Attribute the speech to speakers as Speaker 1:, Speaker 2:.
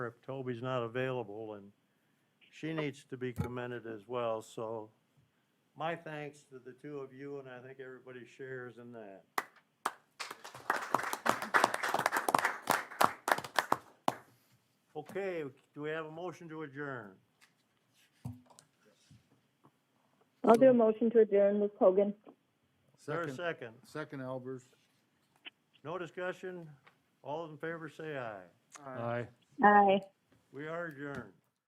Speaker 1: if Toby's not available, and she needs to be commended as well, so my thanks to the two of you, and I think everybody shares in that. Okay, do we have a motion to adjourn?
Speaker 2: I'll do a motion to adjourn, Ms. Hogan.
Speaker 1: Is there a
Speaker 3: Second,
Speaker 1: second?
Speaker 3: second Albers.
Speaker 1: No discussion? All in favor, say aye.
Speaker 3: Aye.
Speaker 2: Aye.
Speaker 1: We are adjourned.